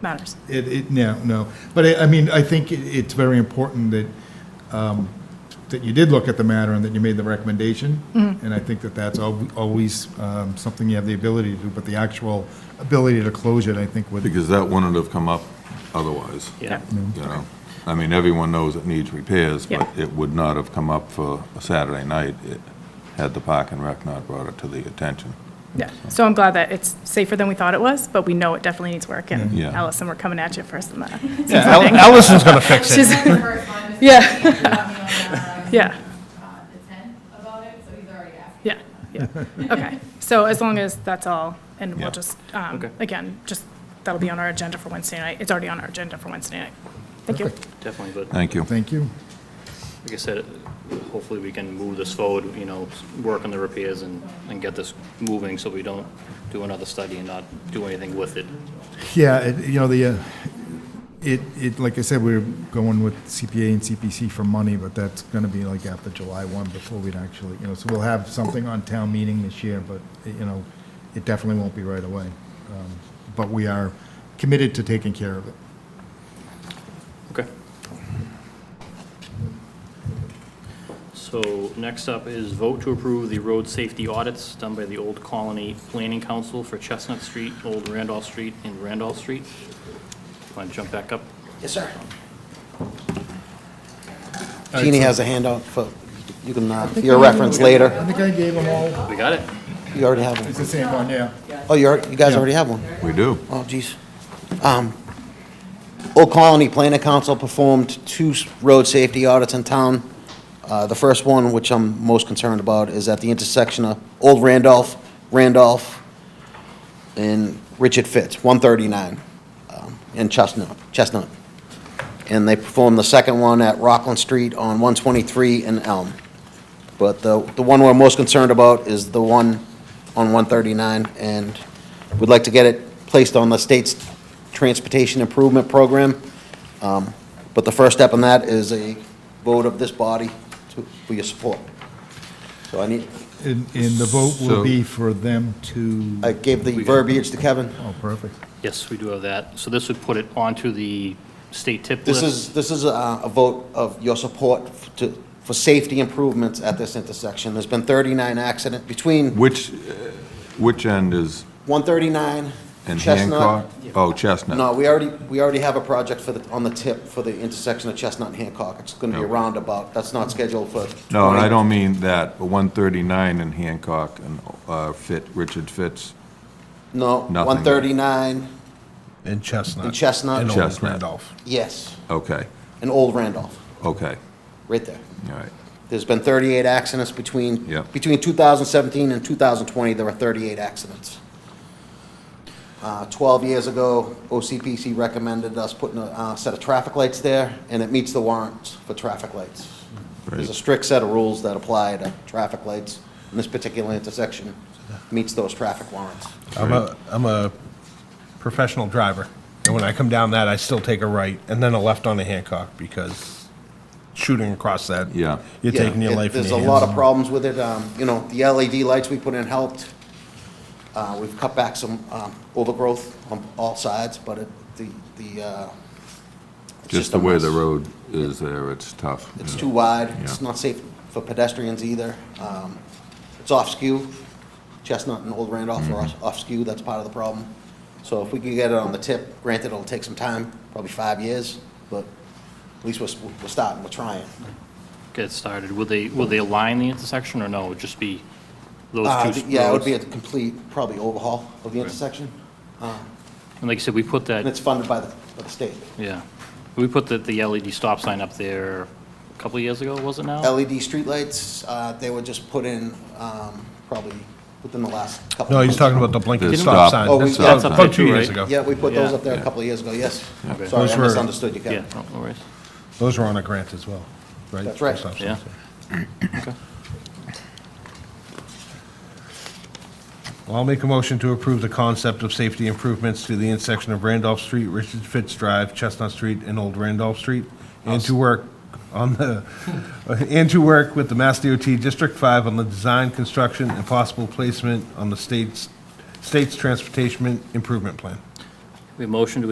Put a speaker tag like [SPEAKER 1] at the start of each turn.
[SPEAKER 1] matters.
[SPEAKER 2] It, it, no, no. But I, I mean, I think it- it's very important that, um, that you did look at the matter and that you made the recommendation. And I think that that's al- always, um, something you have the ability to do, but the actual ability to close it, I think would.
[SPEAKER 3] Because that wouldn't have come up otherwise, you
[SPEAKER 4] Yeah.
[SPEAKER 3] know? I mean, everyone knows it needs repairs, but
[SPEAKER 1] Yeah.
[SPEAKER 3] it would not have come up for a Saturday night it- had the Park and Rec not brought it to the attention.
[SPEAKER 1] Yeah, so I'm glad that it's safer than we thought it was, but we know it definitely needs work, and
[SPEAKER 3] Yeah. Yeah.
[SPEAKER 1] Allison, we're coming at you uh, first on that.
[SPEAKER 4] Yeah, Al- Allison's gonna fix it.
[SPEAKER 1] She's-
[SPEAKER 5] Yeah.
[SPEAKER 1] Yeah,
[SPEAKER 5] uh, The tent about it, so he's already asking.
[SPEAKER 1] yeah, yeah, okay. So as long as that's all, and
[SPEAKER 3] Yeah.
[SPEAKER 1] we'll just, um,
[SPEAKER 4] Okay.
[SPEAKER 1] again, just, that'll be on our agenda for Wednesday night. It's already on our agenda for Wednesday night. Thank you.
[SPEAKER 4] Definitely, but
[SPEAKER 3] Thank you.
[SPEAKER 2] Thank you.
[SPEAKER 4] like I said, hopefully we can move this forward, you know, s- work on the repairs and, and get this moving so we don't do another study and not do anything with it.
[SPEAKER 2] Yeah, it, you know, the, uh, it, it, like I said, we are going with CPA and CPC for money, but that's gonna be like after July one before we'd actually, you know, so we'll have something on town meeting this year, but, you know, it definitely won't be right away. Um, But we are committed to taking care of it.
[SPEAKER 4] Okay. So next up is vote to approve the road safety audits done by the Old Colony Planning Council for Chestnut Street, Old Randolph Street, and Randolph Street. Want to jump back up?
[SPEAKER 6] Yes, sir. Jeannie has a handout for, you can, uh, for your reference
[SPEAKER 2] I
[SPEAKER 6] later.
[SPEAKER 2] think I gave them all,
[SPEAKER 4] We got it?
[SPEAKER 6] You already have
[SPEAKER 2] it's
[SPEAKER 6] one.
[SPEAKER 2] the same one, yeah.
[SPEAKER 6] Oh, you already- you guys
[SPEAKER 2] Yeah.
[SPEAKER 6] already have one?
[SPEAKER 3] We do.
[SPEAKER 6] Oh, geez. Um, Old Colony Planning Council performed two s- road safety audits in town. Uh, The first one, which I'm most concerned about, is at the intersection of Old Randolph, Randolph, and Richard Fitz, 139, um, in Chestnut, Chestnut. And they performed the second one at Rockland Street on 123 and Elm. But the, the one we're most concerned about is the one on 139, and we'd like to get it placed on the state's transportation improvement program. Um, But the first step in that is a vote of this body to, for your support. So I need,
[SPEAKER 2] And, and the vote will
[SPEAKER 3] So-
[SPEAKER 2] be for them to,
[SPEAKER 6] I gave the verbiage to Kevin.
[SPEAKER 2] oh, perfect.
[SPEAKER 4] Yes, we do have that. So this would put it onto the state tip list.
[SPEAKER 6] This is, this is a, a vote of your support f- to, for safety improvements at this intersection. There's been 39 accidents between
[SPEAKER 3] Which, uh, which end is
[SPEAKER 6] 139
[SPEAKER 3] in
[SPEAKER 6] and
[SPEAKER 3] Hancock?
[SPEAKER 6] Chestnut.
[SPEAKER 3] Oh, Chestnut.
[SPEAKER 6] No, we already, we already have a project for the, on the tip for the intersection of Chestnut and Hancock. It's gonna be a
[SPEAKER 3] Okay.
[SPEAKER 6] roundabout. That's not scheduled for.
[SPEAKER 3] No, and I
[SPEAKER 6] 20.
[SPEAKER 3] don't mean that, but 139 in Hancock and uh, Fit, Richard Fitz.
[SPEAKER 6] No,
[SPEAKER 3] Nothing.
[SPEAKER 6] 139,
[SPEAKER 7] In Chestnut.
[SPEAKER 6] In Chestnut.
[SPEAKER 7] In Old
[SPEAKER 3] Chestnut.
[SPEAKER 7] Randolph.
[SPEAKER 6] yes,
[SPEAKER 3] Okay,
[SPEAKER 6] and Old Randolph,
[SPEAKER 3] okay,
[SPEAKER 6] right there.
[SPEAKER 3] all right.
[SPEAKER 6] There's been 38 accidents between,
[SPEAKER 3] Yeah.
[SPEAKER 6] between 2017 and 2020, there were 38 accidents. Uh, 12 years ago, OCPC recommended us putting a uh, set of traffic lights there, and it meets the warrants for traffic lights. There's a
[SPEAKER 3] Right.
[SPEAKER 6] strict set of rules that apply to traffic lights, and this particular intersection meets those traffic warrants.
[SPEAKER 7] I'm a, I'm a professional driver. And when I come down that, I still take a right and then a left on a Hancock because shooting across that.
[SPEAKER 3] Yeah.
[SPEAKER 7] You're
[SPEAKER 6] Yeah,
[SPEAKER 7] taking your
[SPEAKER 6] it-
[SPEAKER 7] life in your hands.
[SPEAKER 6] There's a lot of problems with it. Um, You know, the LED lights we put in helped. Uh, We've cut back some um, overgrowth on all sides, but it- the, the. uh, it's
[SPEAKER 3] Just
[SPEAKER 6] a
[SPEAKER 3] the way the
[SPEAKER 6] mess.
[SPEAKER 3] road is there, it's tough.
[SPEAKER 6] It's
[SPEAKER 3] Yeah.
[SPEAKER 6] too wide. It's
[SPEAKER 3] Yeah.
[SPEAKER 6] not safe for pedestrians either. Um, It's off skew. Chestnut and Old Randolph are
[SPEAKER 3] Mm-hmm.
[SPEAKER 6] off- off skew. That's part of the problem. So if we could get it on the tip, granted, it'll take some time, probably five years, but at least we're, s- we're starting, we're trying.
[SPEAKER 4] Get started. Will they, will they align the intersection or no? It would just be those two
[SPEAKER 6] Uh,
[SPEAKER 4] roads?
[SPEAKER 6] Yeah, it would be a complete, probably overhaul of the intersection,
[SPEAKER 4] And like I said, we put
[SPEAKER 6] and
[SPEAKER 4] that,
[SPEAKER 6] it's funded by the, by the state.
[SPEAKER 4] yeah, we put the, the LED stop sign up there a couple of years ago, was it now?
[SPEAKER 6] LED E streetlights, uh, they were just put in um, probably within the last couple.
[SPEAKER 7] No,
[SPEAKER 6] of
[SPEAKER 7] he's
[SPEAKER 6] months.
[SPEAKER 7] talking about the blinking
[SPEAKER 3] Didn't
[SPEAKER 7] stop
[SPEAKER 3] we-
[SPEAKER 7] sign.
[SPEAKER 6] Oh, we- yeah,
[SPEAKER 3] that's up
[SPEAKER 7] About
[SPEAKER 4] there
[SPEAKER 7] two
[SPEAKER 4] too,
[SPEAKER 7] years
[SPEAKER 4] right?
[SPEAKER 7] ago.
[SPEAKER 6] Yeah, we put those
[SPEAKER 4] Yeah.
[SPEAKER 6] up there a couple of years ago, yes.
[SPEAKER 4] Okay.
[SPEAKER 6] Sorry,
[SPEAKER 7] Those
[SPEAKER 6] I
[SPEAKER 7] were-
[SPEAKER 6] misunderstood you,
[SPEAKER 4] Yeah, Oh,
[SPEAKER 6] Kevin.
[SPEAKER 4] no no worries.
[SPEAKER 7] Those were on a grant as well, right?
[SPEAKER 6] That's right.
[SPEAKER 7] Stop signs,
[SPEAKER 4] Yeah. Okay.
[SPEAKER 7] Well, I'll make a motion to approve the concept of safety improvements to the intersection of Randolph Street, Richard Fitz Drive, Chestnut Street, and Old Randolph Street, and to work on the, and to work with the Mass DOT District Five on the design, construction, and possible placement on the state's, state's transportation improvement plan.
[SPEAKER 4] We have motion to